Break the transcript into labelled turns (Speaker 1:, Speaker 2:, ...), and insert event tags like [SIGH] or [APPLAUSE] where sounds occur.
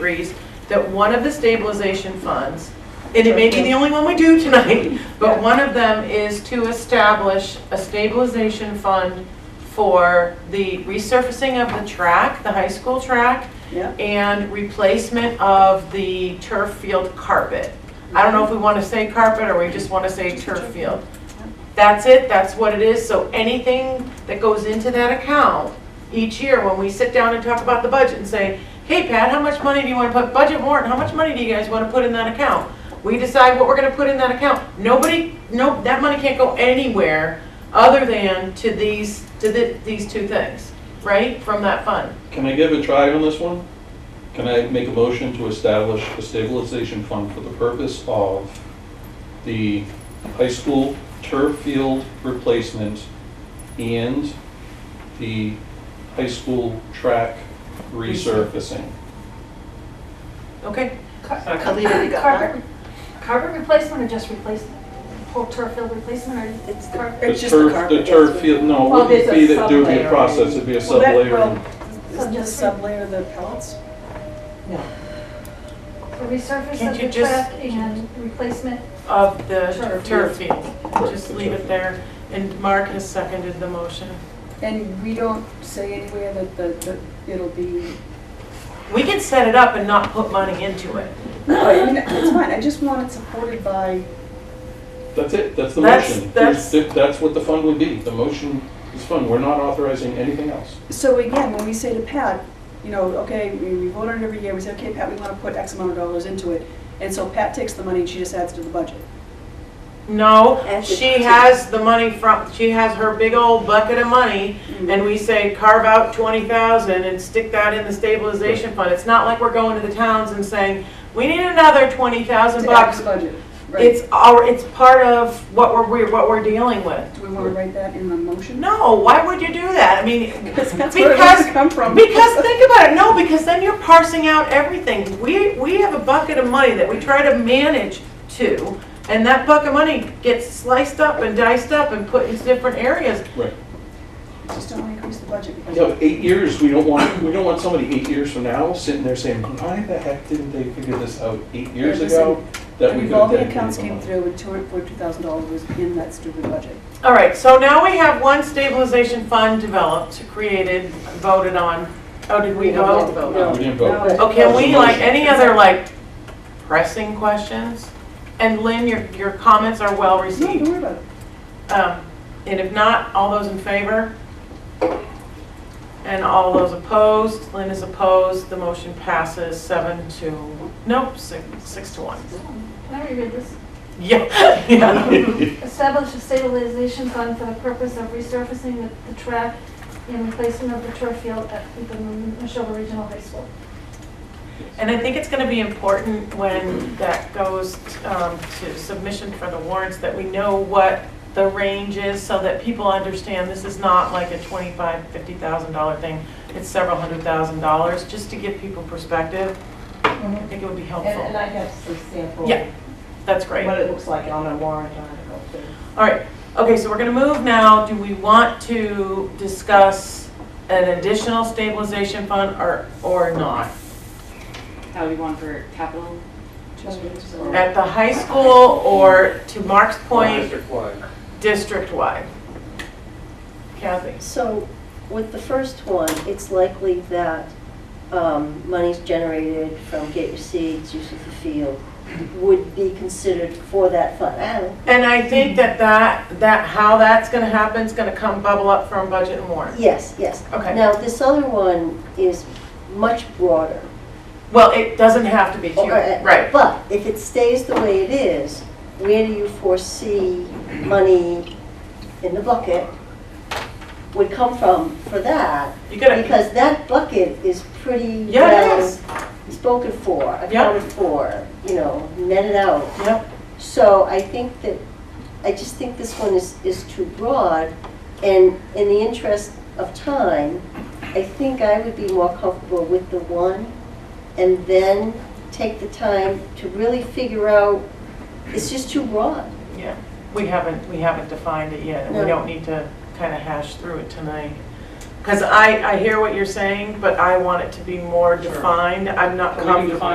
Speaker 1: agrees that one of the stabilization funds, and it may be the only one we do tonight, but one of them is to establish a stabilization fund for the resurfacing of the track, the high school track,
Speaker 2: Yeah.
Speaker 1: and replacement of the turf field carpet. I don't know if we want to say carpet or we just want to say turf field. That's it, that's what it is, so anything that goes into that account each year, when we sit down and talk about the budget and say, hey Pat, how much money do you want to put, budget warrant, how much money do you guys want to put in that account? We decide what we're going to put in that account. Nobody, no, that money can't go anywhere other than to these, to the- these two things, right, from that fund.
Speaker 3: Can I give a try on this one? Can I make a motion to establish a stabilization fund for the purpose of the high school turf field replacement and the high school track resurfacing?
Speaker 1: Okay?
Speaker 2: Kalita, you got that?
Speaker 4: Carpet, carpet replacement or just replacement? Whole turf field replacement or?
Speaker 2: It's the
Speaker 4: Carpet.
Speaker 2: It's
Speaker 3: The
Speaker 2: just the
Speaker 3: turf-
Speaker 2: carpet.
Speaker 3: The turf field, no,
Speaker 5: Well,
Speaker 3: it wouldn't
Speaker 5: there's
Speaker 3: be
Speaker 5: a
Speaker 3: that, there would be a
Speaker 5: sub-layer.
Speaker 3: process, it'd be a
Speaker 5: Well, that- well,
Speaker 3: sub-layer.
Speaker 2: Isn't the sublayer the pellets?
Speaker 4: The resurface
Speaker 1: Can't
Speaker 4: of
Speaker 1: you
Speaker 4: the
Speaker 1: just-
Speaker 4: track and replacement?
Speaker 1: of the
Speaker 4: Turf.
Speaker 1: turf field.
Speaker 3: Right,
Speaker 1: Just
Speaker 3: the
Speaker 1: leave
Speaker 3: turf.
Speaker 1: it there. And Mark has seconded the motion.
Speaker 2: And we don't say anywhere that the, that it'll be.
Speaker 1: We can set it up and not put money into it.
Speaker 2: No, I mean, it's fine, I just want it supported by,
Speaker 3: That's it, that's the
Speaker 1: That's-
Speaker 3: motion.
Speaker 1: that's-
Speaker 3: There's- That's what the fund would be, the motion is fund, we're not authorizing anything else.
Speaker 2: so again, when we say to Pat, you know, okay, we we vote on it every year, we say, okay, Pat, we want to put X amount of dollars into it. And so Pat takes the money and she just adds to the budget.
Speaker 1: No,
Speaker 6: As it
Speaker 1: she
Speaker 6: is.
Speaker 1: has the money from, she has her big old bucket of money
Speaker 2: Mm-hmm.
Speaker 1: and we say carve out twenty thousand and stick that in the stabilization fund. It's not like we're going to the towns and saying, we need another twenty thousand
Speaker 2: To add to
Speaker 1: bucks.
Speaker 2: the budget, right?
Speaker 1: It's our, it's part of what we're- we're, what we're dealing with.
Speaker 2: Do we want to write that in the motion?
Speaker 1: No, why would you do that? I mean,
Speaker 2: Because [LAUGHS] that's where it has to come from.
Speaker 1: Because think about it, no, because then you're parsing out everything. We, we have a bucket of money that we try to manage to, and that bucket of money gets sliced up and diced up and put in different areas.
Speaker 3: Right.
Speaker 2: Just don't want to increase the budget because.
Speaker 3: Yeah, but eight years, we don't want, we don't want somebody eight years from now sitting there saying, why the heck didn't they figure this out eight years
Speaker 2: Yeah,
Speaker 3: ago? That we
Speaker 2: The
Speaker 3: could have
Speaker 2: revolving
Speaker 3: dedicated
Speaker 2: accounts
Speaker 3: some
Speaker 2: came
Speaker 3: money."
Speaker 2: through and two hundred forty-two thousand dollars was in that stupid budget.
Speaker 1: All right, so now we have one stabilization fund developed, created, voted on. Oh, did we vote?
Speaker 3: No. We didn't vote.
Speaker 2: No.
Speaker 1: Okay, and we like, any other like pressing questions? And Lynn, your, your comments are well
Speaker 2: No, don't
Speaker 1: received.
Speaker 2: worry about it.
Speaker 1: Um, And if not, all those in favor? And all those opposed? Lynn is opposed. The motion passes seven to, nope, six, six to one. [LAUGHS]
Speaker 4: Can I reread this?
Speaker 1: Yeah, yeah.
Speaker 4: Establish a stabilization fund for the purpose of resurfacing the, the track and replacement of the turf field at the Neshoba Regional High School.
Speaker 1: And I think it's going to be important when that goes um, to submission for the warrants, that we know what the range is so that people understand this is not like a $25,000, $50,000 thing. It's several hundred thousand dollars, just to give people perspective. I
Speaker 5: Mhm.
Speaker 1: think it would be
Speaker 5: And,
Speaker 1: Mm-hmm.
Speaker 5: and
Speaker 1: helpful.
Speaker 5: I have some sample.
Speaker 1: Yeah, that's great.
Speaker 5: What it looks like on a warrant article. too.
Speaker 1: All right, okay, so we're gonna move now, do we want to discuss an additional stabilization fund or, or not?
Speaker 7: How do you want for capital?
Speaker 1: At the high school or to Mark's point, district-wide? Kathy?
Speaker 6: So with the first one, it's likely that um, monies generated from Get Your Seeds, use of the field, would be considered for that fund. I don't know.
Speaker 1: And I think that that, that, how that's gonna happen is gonna come bubble up from budget and warrant.
Speaker 6: Yes, yes.
Speaker 1: Okay,
Speaker 6: Now, this other one is much broader.
Speaker 1: well, it doesn't have to be too,
Speaker 6: Okay,
Speaker 1: right.
Speaker 6: But if it stays the way it is, where do you foresee money in the bucket would come from for that?
Speaker 1: You gotta,
Speaker 6: Because that bucket is pretty well.
Speaker 1: yeah, it is,
Speaker 6: spoken for, accounted for, you know, netted out.
Speaker 1: yep,
Speaker 6: So I think that, I just think this one is, is too broad, and in the interest of time, I think I would be more comfortable with the one, and then take the time to really figure out, it's just too broad.
Speaker 1: yeah. We haven't, we haven't defined it yet, and we
Speaker 6: No.
Speaker 1: don't need to kinda hash through it tonight. Because I, I hear what you're saying, but I want it to be more defined. I'm not
Speaker 3: Can we
Speaker 1: comfortable.
Speaker 3: define